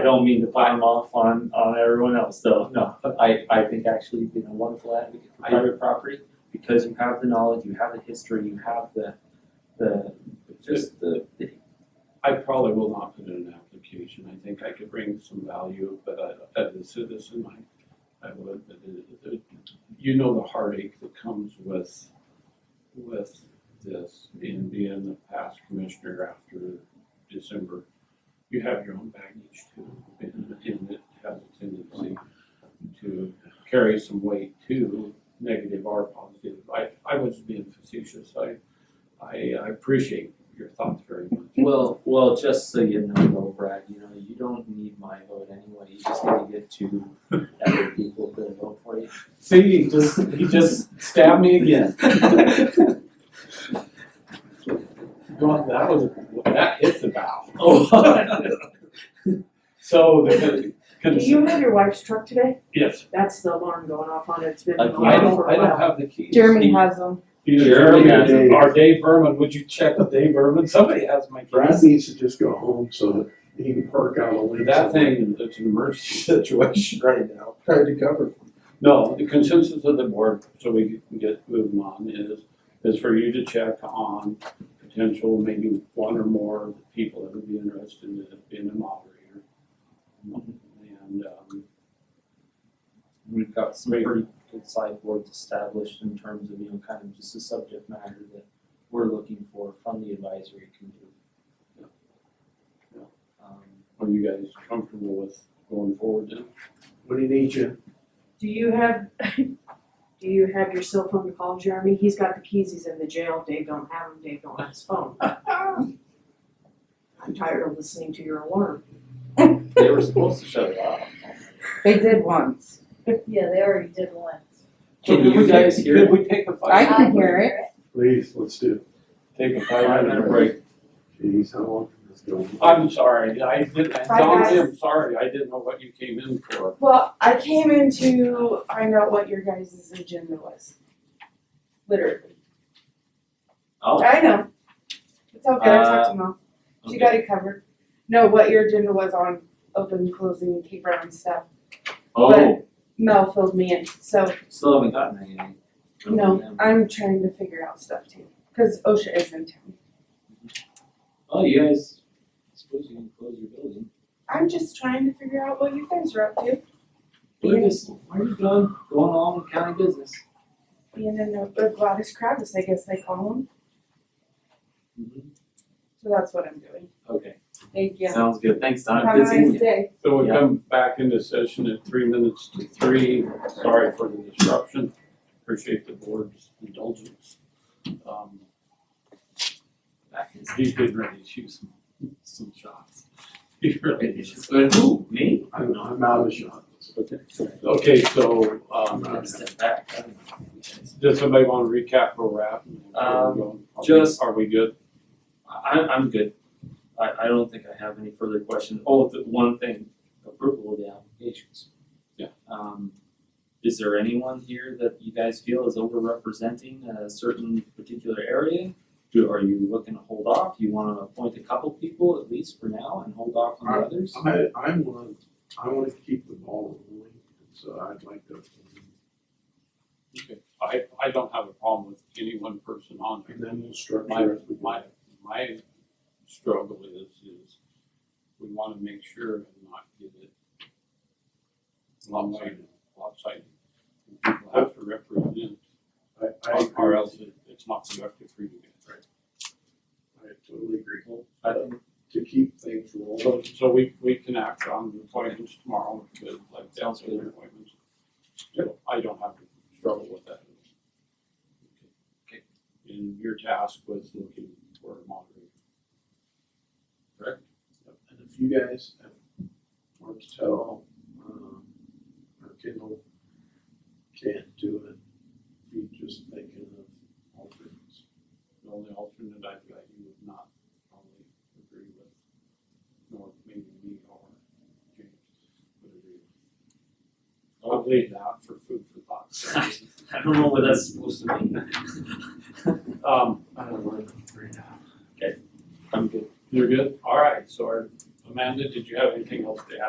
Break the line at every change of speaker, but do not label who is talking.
don't mean to pile off on, on everyone else, though, no, I, I think actually you've been a wonderful advocate for
I-
private property, because you have the knowledge, you have the history, you have the, the, just the, the
I probably will not put in an application. I think I could bring some value, but I, as a citizen, I, I would, but it, it, you know the heartache that comes with, with this and being the past commissioner after December. You have your own baggage too, and, and it has a tendency to carry some weight too, negative or positive. I, I was being facetious. I, I, I appreciate your thoughts very much.
Well, well, just so you know though, Brad, you know, you don't need my vote anyway, you just need to get two other people to vote for you.
See, he just, he just stabbed me again. God, that was, that hit the bow.
Oh.
So, the,
Do
cons-
you have your wife's truck today?
yes,
That's the alarm going off on it, it's been
Like,
going
I
off for
don't, I
a
don't
while.
have the keys.
Jeremy has them.
Either
Jeremy
Jeremy
has
it.
or Dave Berman, would you check with Dave Berman? Somebody has my
Brad
keys.
needs to just go home so that he can park out a lane.
That
somewhere.
thing, it's an emergency situation right now.
Tried to cover.
No, the consensus of the board, so we can get moving on, is, is for you to check on potential, maybe one or more people that would be interested in being a moderator. And, um,
We've got some pretty good sideboards established in terms of, you know, kind of just the subject matter that we're looking for from the advisory committee.
Yeah.
Um,
are you guys comfortable with going forward then?
What do you need, Jim?
Do you have, do you have your cell phone to call Jeremy? He's got the keys, he's in the jail, Dave don't have them, Dave don't have his phone. I'm tired of listening to your alarm.
They were supposed to shut it off.
They did once.
Yeah, they already did once.
Can
Could
you
we
guys
take-
hear
Could
it?
we take a
I
five?
can hear it.
Please, let's do it.
Take a five minute break.
Jeez, how long can this go?
I'm sorry, I didn't,
Bye, guys.
Donzie, I'm sorry, I didn't know what you came in for.
Well, I came in to find out what your guys' agenda was. Literally.
Oh,
I know. It's okay, I
Uh,
talked to mom. She got
okay.
it covered. No, what your agenda was on open, closing, Kate Brown stuff.
Oh,
Mel filled me in, so,
still haven't gotten anything. from
no,
them.
I'm trying to figure out stuff too, cause OSHA is in town.
Oh, you guys, I suppose you can close your building.
I'm just trying to figure out what you guys are up to,
Where is, where are you going, going along with county business?
being in the the Gladys Kravis, I guess they call them, so that's what I'm doing.
Mm-hmm. Okay,
Thank you.
sounds good, thanks, Don.
Have a
Good seeing
nice
you.
day.
So we
Yeah.
come back into session at three minutes to three. Sorry for the disruption. Appreciate the board's indulgence. Um,
Back in-
He's getting ready to shoot some, some shots. He really is.
But who, me?
I'm, I'm out of shot.
Okay, so, um,
I'm gonna step back, I don't know. You guys-
does somebody want to recap or wrap?
Um,
Are we-
just-
Are we good?
I, I'm good. I, I don't think I have any further questions. Oh, the one thing, approval of the applications.
Yeah.
Um, is there anyone here that you guys feel is overrepresenting a certain particular area? Do, are you looking to hold off? Do you wanna appoint a couple people at least for now and hold off on the others?
I, I want, I want to keep the ball rolling, so I'd like to.
Okay. I, I don't have a problem with any one person on there.
And then we'll structure.
My,
as we go.
my, my struggle is, is we wanna make sure and not get it lopsided, lopsided. People have to represent,
I, I agree.
or else it- it's not productive for you guys.
I totally agree.
I think,
To keep things rolling.
So, so we, we can act on the appointments tomorrow, but like that's
Sounds
the appointments. So I don't have to struggle with that.
Okay.
And your task was looking for a moderator.
And if you guys have more to tell, um, or Kendall can't do it, you just thinking of alternates.
The only alternate I've got you would not probably agree with, nor maybe me or James would agree with. I'll leave that for food for thought.
I don't know what that's supposed to mean.
Um,
I don't know, right now.
I'm good.
you're good? All right, so Amanda, did you have anything else to add?